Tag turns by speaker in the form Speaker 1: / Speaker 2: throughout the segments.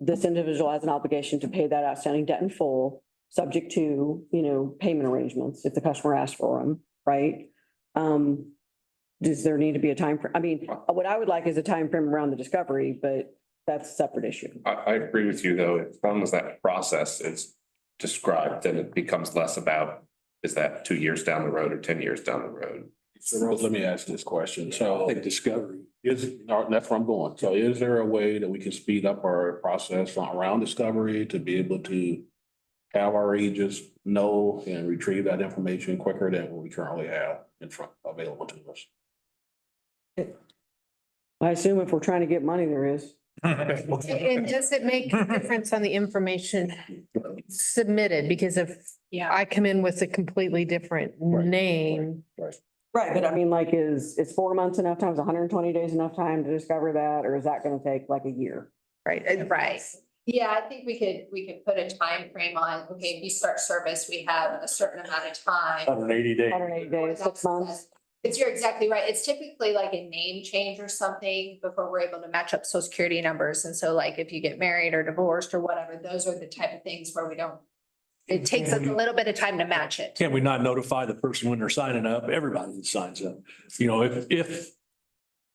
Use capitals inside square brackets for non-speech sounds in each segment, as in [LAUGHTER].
Speaker 1: this individual has an obligation to pay that outstanding debt in full, subject to, you know, payment arrangements if the customer asks for them, right? Um, does there need to be a time frame? I mean, what I would like is a time frame around the discovery, but that's a separate issue.
Speaker 2: I, I agree with you, though, as long as that process is described, then it becomes less about, is that two years down the road or ten years down the road?
Speaker 3: So Rose, let me ask this question. So I think discovery is, that's where I'm going. So is there a way that we can speed up our process around discovery to be able to have our agents know and retrieve that information quicker than what we currently have in front available to us?
Speaker 1: I assume if we're trying to get money, there is.
Speaker 4: And does it make a difference on the information submitted? Because if
Speaker 5: Yeah.
Speaker 4: I come in with a completely different
Speaker 3: Right.
Speaker 4: name,
Speaker 1: Right, but I mean, like, is, is four months enough time? Is hundred and twenty days enough time to discover that? Or is that gonna take like a year?
Speaker 4: right?
Speaker 5: Right. Yeah, I think we could, we could put a time frame on, okay, if you start service, we have a certain amount of time.
Speaker 6: Hundred and eighty days.
Speaker 1: Hundred and eighty days, six months?
Speaker 5: It's, you're exactly right. It's typically like a name change or something before we're able to match up social security numbers. And so like if you get married or divorced or whatever, those are the type of things where we don't. It takes us a little bit of time to match it.
Speaker 6: Can we not notify the person when they're signing up? Everybody that signs up, you know, if, if,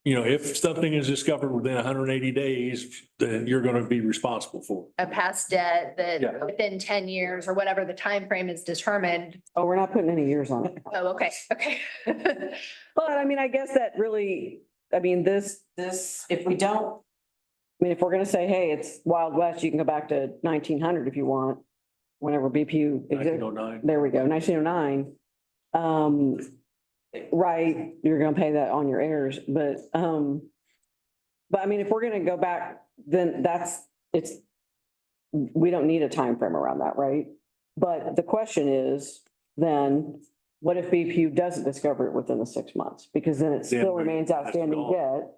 Speaker 6: you know, if something is discovered within hundred and eighty days, then you're going to be responsible for it.
Speaker 5: A past debt
Speaker 6: Yeah.
Speaker 5: that within ten years or whatever the time frame is determined.
Speaker 1: Oh, we're not putting any years on it.
Speaker 5: Oh, okay, okay. [LAUGHS]
Speaker 1: But I mean, I guess that really, I mean, this, this, if we don't. I mean, if we're gonna say, hey, it's Wild West, you can go back to nineteen hundred if you want, whenever BPU. exists.
Speaker 6: 1909.
Speaker 1: There we go, nineteen oh nine. Um, right, you're gonna pay that on your heirs, but, um. But I mean, if we're gonna go back, then that's, it's, we don't need a time frame around that, right? But the question is, then, what if BPU doesn't discover it within the six months? Because then it
Speaker 6: Then
Speaker 1: still
Speaker 6: we-
Speaker 1: remains
Speaker 6: that's
Speaker 1: outstanding
Speaker 6: gone.
Speaker 1: debt.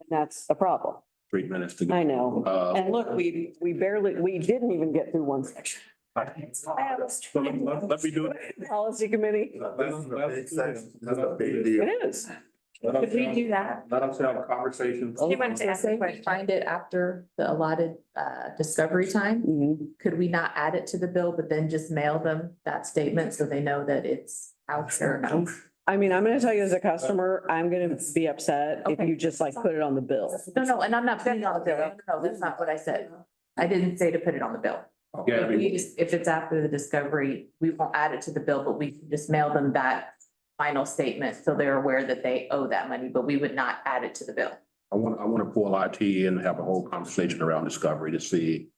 Speaker 1: And that's a problem.
Speaker 3: Three minutes to go.
Speaker 1: I know.
Speaker 3: Uh,
Speaker 1: And Oh, look, we, we barely, we didn't even get through one section.
Speaker 6: Let me do it.
Speaker 1: Policy committee,
Speaker 7: That's a big deal.
Speaker 1: it is.
Speaker 8: Could we do that?
Speaker 7: Let us have a conversation.
Speaker 8: Anyone say we find it after the allotted uh discovery time?
Speaker 1: Mhm.
Speaker 8: Could we not add it to the bill, but then just mail them that statement so they know that it's out there now?
Speaker 1: I mean, I'm gonna tell you as a customer, I'm gonna be upset if you just like put it on the bill.
Speaker 8: No, no, and I'm not putting it on the bill. No, No, no, that's not what I said. I didn't say to put it on the bill.
Speaker 3: Yeah, I
Speaker 8: We
Speaker 3: mean,
Speaker 8: just- If it's after the discovery, we won't add it to the bill, but we can just mail them that final statement so they're aware that they owe that money, but we would not add it to the bill.
Speaker 3: I want, I want to pull IT and have a whole conversation around discovery to see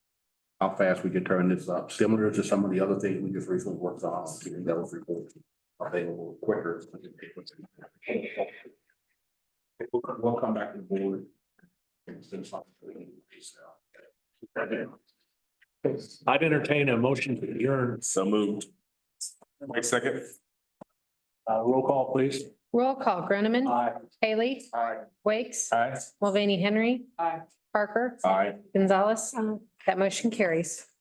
Speaker 3: how fast we can turn this up, similar to some of the other things we just recently worked on, getting those reports available quicker. We'll, come- we'll come back to the board. and send something to the police now.
Speaker 6: I'd entertain a motion to adjourn.
Speaker 2: So moved. Wait a second.
Speaker 6: Uh, roll call, please.
Speaker 4: Roll call, Groneman,
Speaker 6: Aye.
Speaker 4: Haley,
Speaker 3: Aye.
Speaker 4: Wakes,
Speaker 6: Aye.
Speaker 4: Mulvaney Henry.
Speaker 1: Aye.
Speaker 4: Parker,
Speaker 3: Aye.
Speaker 4: Gonzalez. That motion carries.